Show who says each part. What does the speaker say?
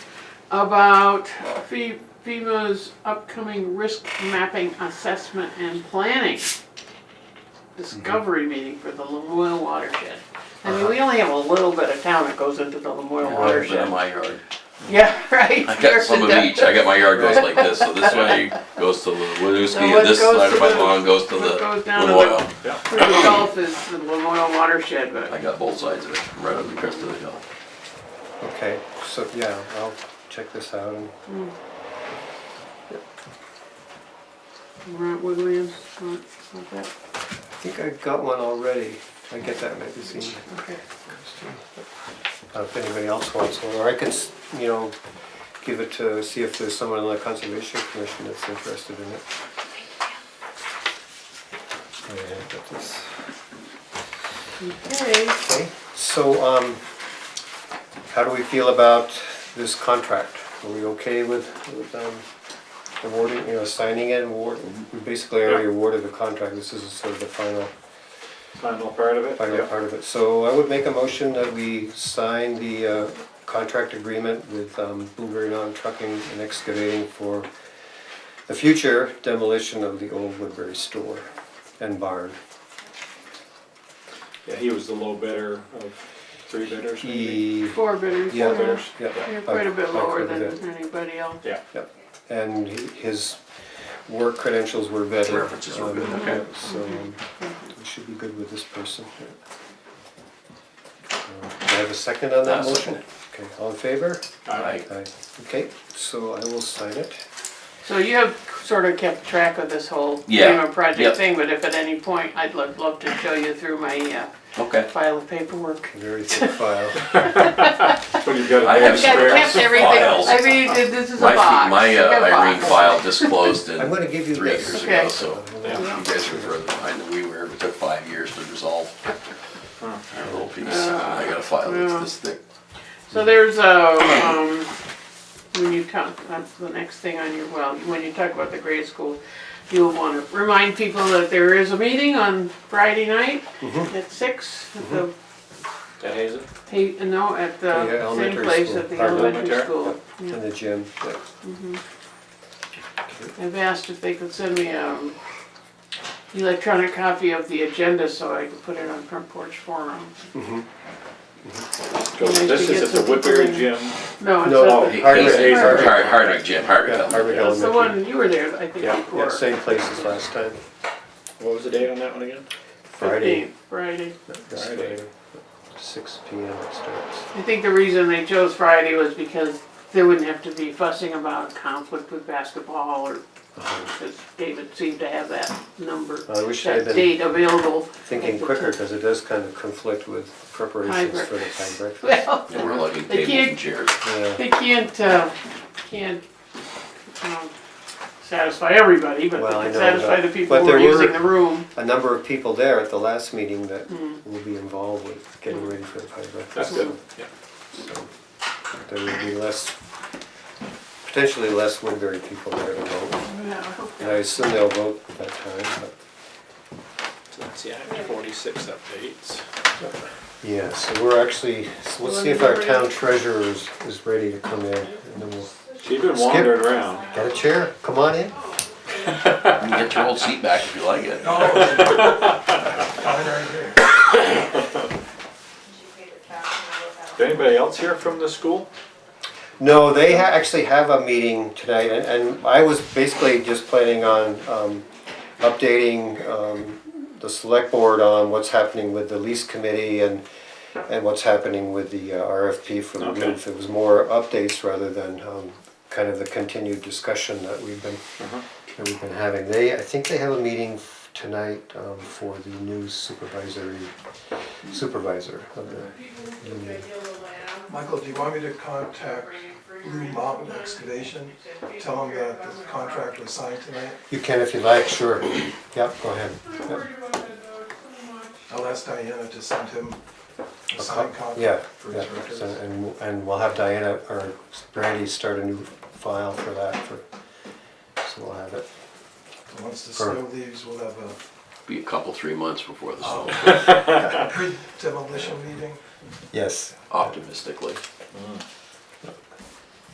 Speaker 1: about Fe- FEMA's upcoming risk mapping assessment and planning
Speaker 2: Mm-hmm.
Speaker 1: discovery meeting for the Lemoyle watershed. I mean, we
Speaker 2: Uh-huh.
Speaker 1: only have a little bit of town that goes into the Lemoyle
Speaker 2: Well, it's been
Speaker 1: watershed.
Speaker 2: in my yard.
Speaker 1: Yeah, right.
Speaker 2: I got some of
Speaker 1: yours
Speaker 2: each. I got my yard goes like this, so this way goes to the Winooski,
Speaker 1: Now what
Speaker 2: and this
Speaker 1: goes
Speaker 2: side
Speaker 1: to
Speaker 2: of my
Speaker 1: the-
Speaker 2: lawn goes to
Speaker 1: what
Speaker 2: the
Speaker 1: goes down to the-
Speaker 2: Lemoyle.
Speaker 1: and down Through the Gulf is the Lemoyle watershed,
Speaker 2: I
Speaker 1: but
Speaker 2: got both sides of it, right up the crest of the hill.
Speaker 3: Okay, so yeah, I'll check this out and
Speaker 1: Grant Williams, not, not that,
Speaker 3: I think I got one already. I get that magazine.
Speaker 2: Mm-hmm.
Speaker 1: okay.
Speaker 3: Uh, If anybody else wants one, or I could, s- you know, give it to, see if there's someone in the Conservation Commission that's interested in it. Yeah, I got this.
Speaker 1: Okay,
Speaker 3: Okay, so, um, how do we feel about this contract? Are we okay with, with, um, awarding, you know, signing it, award, we basically already awarded the contract, this is sort of the final,
Speaker 4: Final part of it?
Speaker 3: final part of it. So I would make a motion that we sign the, uh, contract agreement with, um, Blueberry Mountain Trucking and Excavating for the future demolition of the old Woodbury store and barn.
Speaker 4: Yeah, he was the low bidder of three bidders, maybe?
Speaker 3: E-
Speaker 1: four bidders,
Speaker 3: Yeah.
Speaker 1: yeah.
Speaker 3: yeah,
Speaker 1: You're quite a bit
Speaker 3: I- I
Speaker 1: lower
Speaker 3: covered
Speaker 1: than
Speaker 3: that.
Speaker 1: anybody else.
Speaker 4: Yeah,
Speaker 3: Yep, and his work credentials were vetted.
Speaker 2: References were vetted,
Speaker 3: Um,
Speaker 2: okay.
Speaker 3: yeah, So, um, we should be good with this person. yeah. Uh, Do I have a second on that
Speaker 2: I'll second
Speaker 3: motion? Okay, all in favor?
Speaker 2: I,
Speaker 3: Aye. Okay, so I will sign it.
Speaker 1: So you have sort of kept track of this whole
Speaker 2: Yeah,
Speaker 1: FEMA project
Speaker 2: yep.
Speaker 1: thing, but if at any point, I'd love, love to show you through my uh,
Speaker 2: okay.
Speaker 1: file of paperwork.
Speaker 3: Very thick file.
Speaker 4: when you've got a
Speaker 2: I
Speaker 4: big
Speaker 2: have
Speaker 1: Yeah,
Speaker 4: square.
Speaker 2: kept everything. Files.
Speaker 1: I mean, th- this is a
Speaker 2: My,
Speaker 1: box.
Speaker 2: fe- my
Speaker 1: You got a
Speaker 2: uh, Irene
Speaker 1: box.
Speaker 2: file just closed in
Speaker 3: I'm gonna give you
Speaker 2: three
Speaker 3: this.
Speaker 2: years ago,
Speaker 1: Okay.
Speaker 2: so you
Speaker 4: Yeah.
Speaker 2: guys were further behind than we were. It took five years to resolve our little piece. I got a file
Speaker 1: Uh, Yeah.
Speaker 2: that's this thick.
Speaker 1: So there's a, um, when you talk, that's the next thing on your, well, when you talk about the grade school, you'll wanna remind people that there is a meeting on Friday night
Speaker 2: Mm-hmm.
Speaker 1: at six at the
Speaker 4: That has it?
Speaker 1: Hey, no, at
Speaker 3: Yeah,
Speaker 1: the same
Speaker 3: elementary
Speaker 1: place,
Speaker 3: school.
Speaker 1: at the
Speaker 3: Pardon?
Speaker 1: elementary
Speaker 4: Elementary?
Speaker 1: school.
Speaker 3: In the gym. yeah.
Speaker 1: I've asked if they could send me an electronic copy of the agenda so I could put it on front porch forum.
Speaker 4: Goes-
Speaker 1: Nice
Speaker 4: This
Speaker 1: to
Speaker 4: is
Speaker 1: get
Speaker 4: at the
Speaker 1: some
Speaker 4: Woodbury
Speaker 1: people in.
Speaker 4: gym.
Speaker 1: No, it's
Speaker 3: No,
Speaker 1: at the,
Speaker 2: He-
Speaker 3: Hardwick.
Speaker 2: he's-
Speaker 1: Hardwick.
Speaker 2: Har- Hardwick Jim, Hardwick.
Speaker 3: Yeah,
Speaker 2: Elementary.
Speaker 3: Harvard
Speaker 1: that's the
Speaker 3: Elementary.
Speaker 1: one, you were there, I think,
Speaker 4: Yeah, yeah,
Speaker 3: Yeah,
Speaker 1: before.
Speaker 3: same place as last time.
Speaker 4: What was the date on that one again?
Speaker 3: Friday.
Speaker 1: 15th, Friday.
Speaker 3: This
Speaker 4: Friday.
Speaker 3: Friday, Six P M it starts.
Speaker 1: I think the reason they chose Friday was because they wouldn't have to be fussing about conflict with basketball or,
Speaker 2: Uh-huh.
Speaker 1: because David seemed to have that number,
Speaker 3: I wish I had
Speaker 1: that
Speaker 3: been-
Speaker 1: date available.
Speaker 3: Thinking quicker, because it does kind of conflict with preparations for the time breakfast.
Speaker 1: Well,
Speaker 2: And we're lugging
Speaker 1: They
Speaker 2: tables
Speaker 1: can't-
Speaker 2: and chairs.
Speaker 3: Yeah,
Speaker 1: They can't, uh, can't, um, satisfy everybody, but
Speaker 3: Well, I
Speaker 1: they can
Speaker 3: know,
Speaker 1: satisfy
Speaker 3: but-
Speaker 1: the people
Speaker 3: but
Speaker 1: who are
Speaker 3: there
Speaker 1: using
Speaker 3: were-
Speaker 1: the room.
Speaker 3: A number of people there at the last meeting that will be involved with getting ready for the time
Speaker 4: That's
Speaker 3: breakfast.
Speaker 4: good, yeah.
Speaker 3: There will be less, potentially less Woodbury people there to vote. And I
Speaker 1: Yeah.
Speaker 3: assume they'll vote at that time, but,
Speaker 4: So that's the Act forty-six updates.
Speaker 3: yeah, so we're actually, so let's see if our town treasurer is, is ready to come in. And then we'll,
Speaker 4: She's been wandering around.
Speaker 3: got a chair? Come on in.
Speaker 2: You can get your old seat back if you like it.
Speaker 4: Is anybody else here from the school?
Speaker 3: No, they ha- actually have a meeting tonight, and, and I was basically just planning on, um, updating, um, the select board on what's happening with the lease committee and, and what's happening with the uh, RFP for the
Speaker 4: Okay.
Speaker 3: roof. It was more updates rather than, um, kind of the continued discussion that we've been, that we've been having. They, I think they have a meeting f- tonight, um, for the new supervisory, supervisor of the union.
Speaker 5: Michael, do you want me to contact Blue Mountain Excavation? Tell them that the contract was signed tonight?
Speaker 3: You can if you like, sure. Yep, go ahead. Yep.
Speaker 5: I'll ask Diana to send him a
Speaker 3: A
Speaker 5: signed
Speaker 3: co-
Speaker 5: copy
Speaker 3: Uh, Yeah,
Speaker 5: for
Speaker 3: yeah,
Speaker 5: his records.
Speaker 3: so- and, we'll- and we'll have Diana or Brandy start a new file for that for, so we'll have it.
Speaker 5: Once the
Speaker 3: for-
Speaker 5: snow leaves, we'll have a
Speaker 2: Be a couple, three months before the snow,
Speaker 5: demolition meeting.
Speaker 3: Yes.
Speaker 2: optimistically.